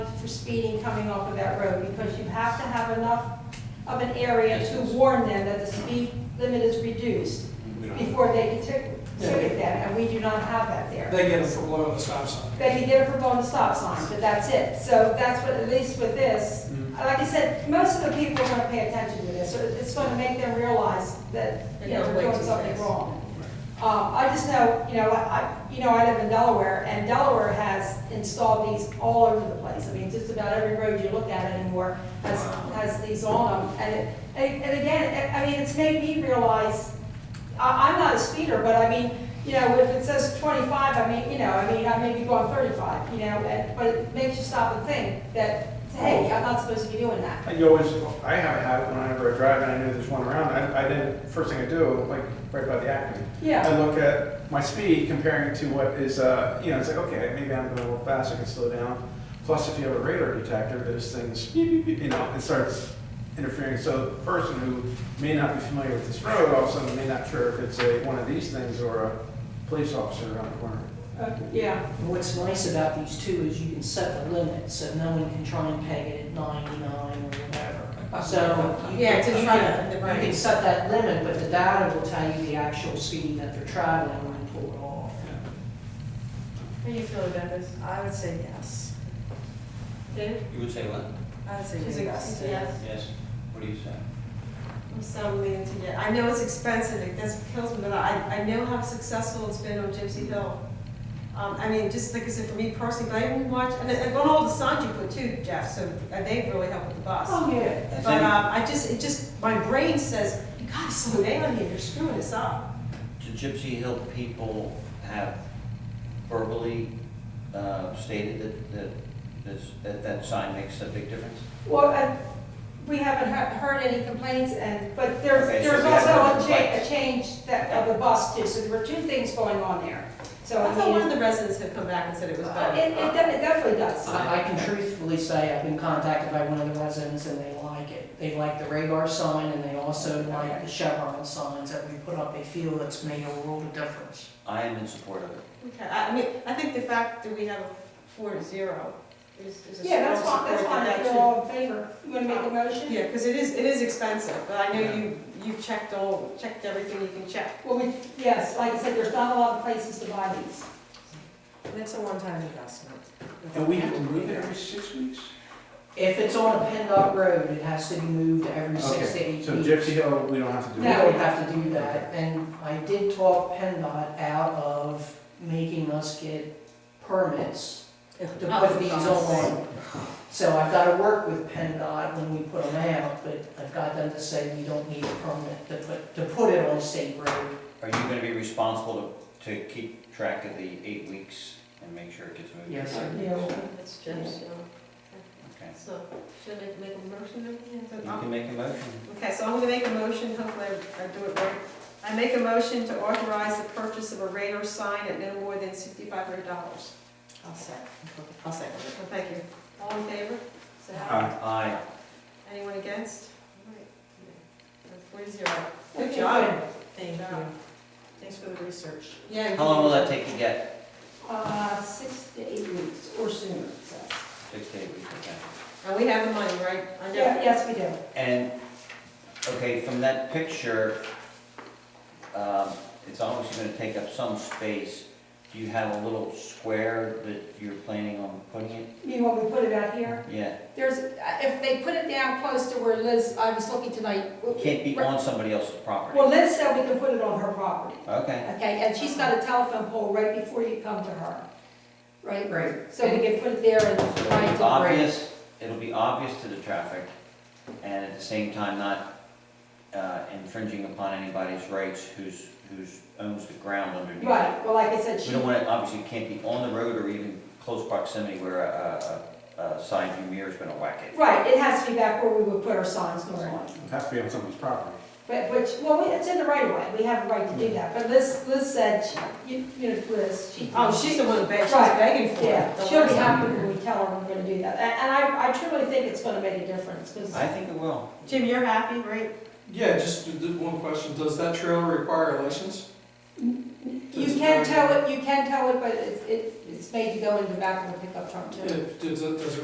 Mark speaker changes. Speaker 1: speeding coming off of that road, because you have to have enough of an area to warn them that the speed limit is reduced
Speaker 2: We don't-
Speaker 1: before they can tick- ticket them, and we do not have that there.
Speaker 3: They get it for blowing the stop sign.
Speaker 1: They can get it for blowing the stop sign, but that's it. So that's what, at least with this, like I said, most of the people are gonna pay attention to this, so it's gonna make them realize that, you know,
Speaker 4: They're
Speaker 1: we're
Speaker 4: going way
Speaker 1: doing
Speaker 4: too
Speaker 1: something
Speaker 4: fast.
Speaker 1: wrong. Um, I just know, you know, I, I- you know, I live in Delaware, and Delaware has installed these all over the place. I mean, just about every road you look at anymore has, has these on them. And, it- and and again, I I mean, it's made me realize, I, I'm not a speeder, but I mean, you know, if it says twenty-five, I mean, you know, I mean, I may be going thirty-five, you know, and, but it makes you stop and think that, hey, I'm not supposed to be doing that.
Speaker 5: And you always, I have a habit whenever I drive and I know there's one around, I, I then, first thing I do, like, right by the Acme.
Speaker 1: Yeah.
Speaker 5: I look at my speed comparing to what is, uh, you know, it's like, okay, maybe I'm going a little fast, I can slow down. Plus, if you have a radar detector, those things, beep, beep, beep, you know, it starts interfering. So the person who may not be familiar with this road, all of a sudden may not sure if it's a, one of these things or a police officer around the corner.
Speaker 1: Uh, Yeah,
Speaker 4: And What's nice about these two is you can set the limit, so no one can try and peg it at ninety-nine or whatever. So you
Speaker 6: Yeah,
Speaker 4: can,
Speaker 6: to
Speaker 4: you
Speaker 6: try
Speaker 4: can,
Speaker 6: to-
Speaker 4: you
Speaker 6: right.
Speaker 4: can set that limit, but the data will tell you the actual speed that they're traveling when you pull it off.
Speaker 6: How do you feel about this? I would say yes.
Speaker 1: David?
Speaker 2: You would say what?
Speaker 6: I would say
Speaker 1: She's a-
Speaker 6: yes.
Speaker 1: yes.
Speaker 2: Yes. What do you say?
Speaker 6: I'm so leaning to yes. I know it's expensive, it does, kills me, but I, I know how successful it's been on Gypsy Hill. Um, I mean, just like I said, for me personally, but I even watch, and, and on all the signs you put too, Jeff, so uh, they've really helped with the bus.
Speaker 1: Oh, yeah.
Speaker 6: But, um, I just, it just, my brain says, you gotta slow down here, you're screwing us up.
Speaker 2: The Gypsy Hill people have verbally uh, stated that, that, this- that that sign makes a big difference?
Speaker 1: Well, I- we haven't he- heard any complaints, and, but there's,
Speaker 2: Okay, so
Speaker 1: there's
Speaker 2: we have
Speaker 1: also
Speaker 2: no
Speaker 1: a change, a
Speaker 2: complaints.
Speaker 1: change that, of the bus too, so there were two things going on there. So,
Speaker 6: I
Speaker 1: I
Speaker 6: thought one of
Speaker 1: mean, it,
Speaker 6: the residents had come back and said it was better.
Speaker 1: it de- it definitely does.
Speaker 2: Uh,
Speaker 4: I, I can truthfully say I've been contacted by one of the residents and they like it. They like the radar sign and they also like the Chevron signs that we put up. They feel it's made a world of difference.
Speaker 2: I am in support of it.
Speaker 6: Okay, I I mean, I think the fact that we have a four to zero is, is a
Speaker 1: Yeah, that's
Speaker 6: strong
Speaker 1: fine, that's
Speaker 6: support
Speaker 1: fine,
Speaker 6: that
Speaker 1: if
Speaker 6: that
Speaker 1: you're all in favor. You wanna make a
Speaker 6: should-
Speaker 1: motion?
Speaker 6: Yeah, because it is, it is expensive, but I know
Speaker 2: Yeah.
Speaker 6: you, you've checked all, checked everything you can check.
Speaker 1: Well, we, yes, like I said, there's not a lot of places to buy these.
Speaker 6: And it's a one-time investment.
Speaker 5: And we have to move it every six weeks?
Speaker 4: If it's on a PennDOT road, it has to be moved every six to eight
Speaker 5: Okay,
Speaker 4: weeks.
Speaker 5: so Gypsy Hill, we don't have to do
Speaker 4: We
Speaker 5: it.
Speaker 1: No.
Speaker 4: don't have to do that, and I did talk PennDOT out of making us get permits
Speaker 6: Oh,
Speaker 4: to put these on. So I've gotta work with PennDOT when we put them out, but I've got them to say you don't need a permit to put, to put it on state road.
Speaker 2: Are you gonna be responsible to, to keep track of the eight weeks and make sure it gets moved?
Speaker 4: Yes, sir.
Speaker 6: That's just, you know,
Speaker 2: Okay.
Speaker 6: so, should I make a motion
Speaker 2: You can make a motion.
Speaker 6: Okay, so I'm gonna make a motion, hopefully I I do it right. I make a motion to authorize the purchase of a radar sign at no more than sixty-five hundred dollars. I'll second. I'll second it. Well, thank you. All in favor? Say aye.
Speaker 2: Aye.
Speaker 6: Anyone against? All right. Four to zero. Good
Speaker 1: Okay,
Speaker 6: job.
Speaker 4: Thank
Speaker 6: Good job.
Speaker 4: thanks for the research.
Speaker 6: Yeah.
Speaker 2: How long will that take to get?
Speaker 1: Uh, six to eight weeks or sooner, it says.
Speaker 2: Six to eight weeks, okay.
Speaker 6: And we have the money, right? I know.
Speaker 1: Yeah, yes, we do.
Speaker 2: And, okay, from that picture, um, it's obviously gonna take up some space. Do you have a little square that you're planning on putting it?
Speaker 1: You mean when we put it out here?
Speaker 2: Yeah,
Speaker 1: There's, uh, if they put it down close to where Liz, I was looking tonight.
Speaker 2: it can't be on somebody else's property.
Speaker 1: Well, Liz said we can put it on her property.
Speaker 2: Okay,
Speaker 1: Okay, and she's got a telephone pole right before you come to her, right?
Speaker 4: Right.
Speaker 1: So we can put it there and
Speaker 2: so
Speaker 1: try
Speaker 2: it'll
Speaker 1: to
Speaker 2: be
Speaker 1: break.
Speaker 2: obvious, it'll be obvious to the traffic, and at the same time not uh, infringing upon anybody's rights who's, who's owns the ground underneath.
Speaker 1: Right, well, like I said,
Speaker 2: We
Speaker 1: she,
Speaker 2: don't want it, obviously, it can't be on the road or even close proximity where a, a, a side view mirror's gonna whack it.
Speaker 1: right, it has to be back where we would put our signs normally.
Speaker 5: It has to be on someone's property.
Speaker 1: But, which, well, we- it's in the right of way, we have a right to do that, but Liz, Liz said, she- you, you know, Liz, she.
Speaker 6: Oh, she's the one begging, she's
Speaker 1: Right.
Speaker 6: begging for it.
Speaker 1: Yeah,
Speaker 6: Don't
Speaker 1: she'll be
Speaker 6: worry.
Speaker 1: happy when we tell her we're gonna do that, and, and I, I truly think it's gonna make a difference, because
Speaker 2: I think it will.
Speaker 6: Jim, you're happy, right?
Speaker 3: Yeah, just th- th- one question, does that trailer require a license?
Speaker 1: you can tow it, you can tow it, but it's, it- it's made to go in the back of the pickup truck too.
Speaker 3: Yeah, does it, does it